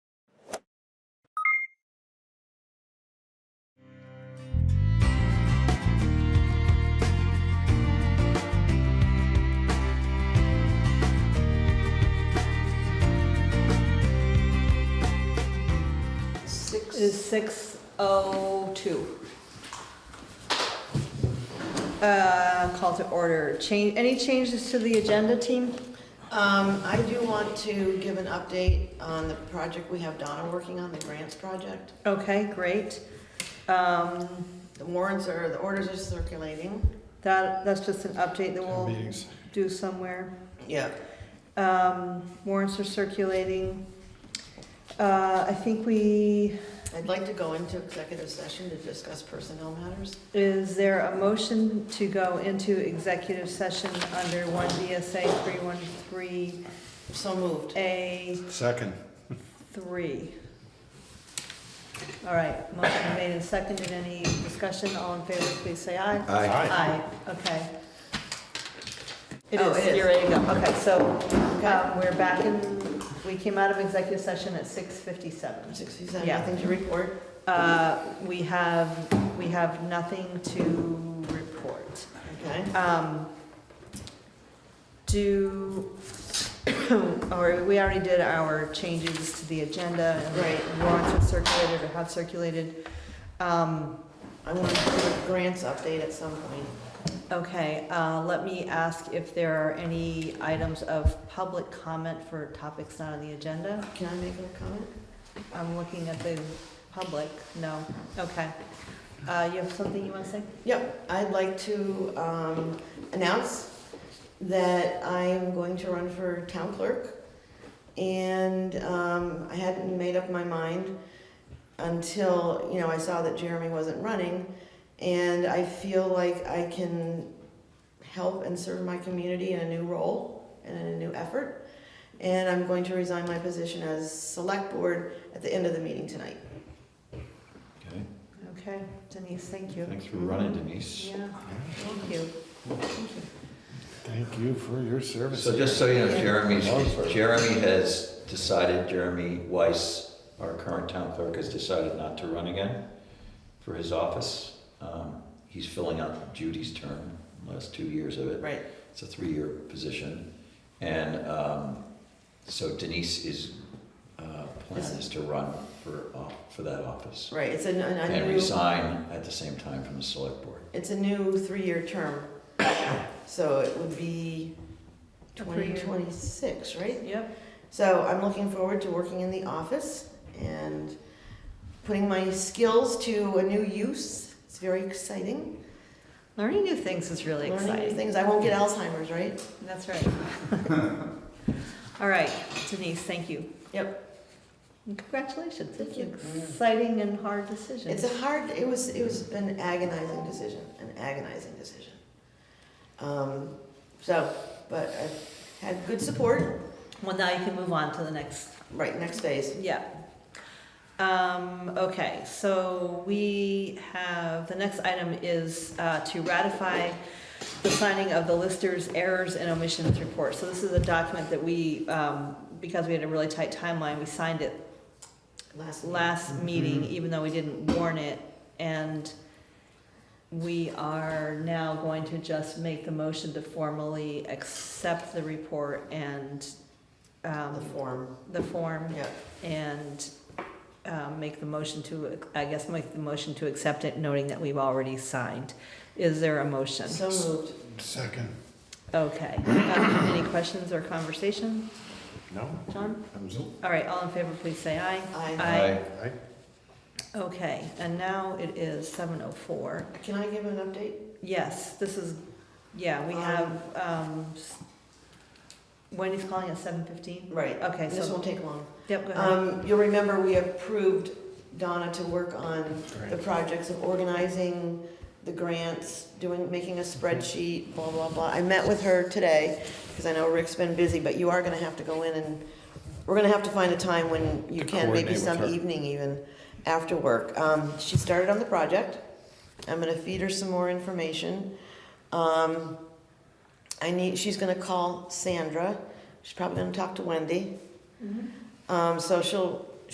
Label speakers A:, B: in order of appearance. A: is six oh two. Uh, call to order. Change, any changes to the agenda, team?
B: Um, I do want to give an update on the project we have Donna working on, the grants project.
A: Okay, great. Um,
B: The warrants are, the orders are circulating.
A: that, that's just an update that we'll
C: meetings.
A: do somewhere.
B: Yeah.
A: Um, warrants are circulating. Uh, I think we,
B: I'd like to go into executive session to discuss personnel matters.
A: is there a motion to go into executive session under one DSA three one three
B: So moved.
A: A
C: Second.
A: three. All right, motion made and seconded. Any discussion? All in favor, please say aye. Aye, okay. It
B: Oh, it
A: is,
B: is.
A: you're ready to go. Okay, so um, we're back in, we came out of executive session at 6:57.
B: Sixty-seven,
A: Yeah.
B: nothing to report.
A: Uh, We have, we have nothing to report.
B: Okay.
A: Um, Do, or we already did our changes to the agenda. and
B: Right.
A: Warrants have circulated or have circulated. Um,
B: I want to do a grants update at some point.
A: Okay, uh, let me ask if there are any items of public comment for topics not on the agenda.
B: Can I make a comment?
A: I'm looking at the public, no, okay. Uh, You have something you want to say?
B: Yep, I'd like to um, announce that I am going to run for town clerk. And um, I hadn't made up my mind until, you know, I saw that Jeremy wasn't running. And I feel like I can help and serve my community in a new role and in a new effort. And I'm going to resign my position as select board at the end of the meeting tonight.
C: Okay,
A: Okay, Denise, thank you.
C: thanks for running Denise.
A: Yeah, thank you.
C: Thank you for your service.
D: So just so you know, Jeremy's, Jeremy has decided, Jeremy Weiss, our current town clerk, has decided not to run again for his office. Um, He's filling out Judy's term, last two years of it.
B: Right.
D: It's a three-year position. And um, so Denise is, uh, plan is to run for, off- for that office.
B: Right, it's a, a
D: And
B: new.
D: resign at the same time from the select board.
B: It's a new three-year term, so it would be
A: A three-year.
B: 2026, right?
A: Yep,
B: So I'm looking forward to working in the office and putting my skills to a new use. It's very exciting.
A: learning new things is really
B: Learning new
A: exciting.
B: things. I won't get Alzheimer's, right?
A: That's right. All right, Denise, thank you.
B: Yep.
A: And Congratulations, it's
B: Thank you.
A: an exciting and hard decision.
B: It's a hard, it was, it was an agonizing decision, an agonizing decision. Um, so, but I had good support,
A: Well, now you can move on to the next
B: right, next phase.
A: Yeah. Um, okay, so we have, the next item is, uh, to ratify the signing of the Lister's errors and omissions report. So this is a document that we, um, because we had a really tight timeline, we signed it
B: Last. Mm-hmm.
A: last meeting, even though we didn't warn it. And we are now going to just make the motion to formally accept the report and,
B: The
A: um,
B: form,
A: the form
B: yeah.
A: and um, make the motion to, I guess, make the motion to accept it, noting that we've already signed. Is there a motion?
B: So moved.
C: Second.
A: Okay. Um, Any questions or conversation,
C: No?
A: John?
C: That was it.
A: All right, all in favor, please say aye.
B: Aye.
A: Aye.
C: Aye.
A: Okay, and now it is 7:04.
B: Can I give an update?
A: Yes, this is, yeah, we have, um, s- Wendy's calling at 7:15?
B: Right.
A: Okay,
B: This
A: so,
B: won't take long.
A: yep, go ahead.
B: Um, you'll remember we approved Donna to work on the
C: Great.
B: projects of organizing the grants, doing, making
C: Mhm.
B: a spreadsheet, blah, blah, blah. I met with her today, because I know Rick's been busy, but you are gonna have to go in and, we're gonna have to find a time when you
C: To
B: can, maybe
C: coordinate with
B: some
C: her.
B: evening even, after work. Um, she started on the project. I'm gonna feed her some more information. Um, I need, she's gonna call Sandra. She's probably gonna talk to Wendy.
A: Mhm.
B: Um, so she'll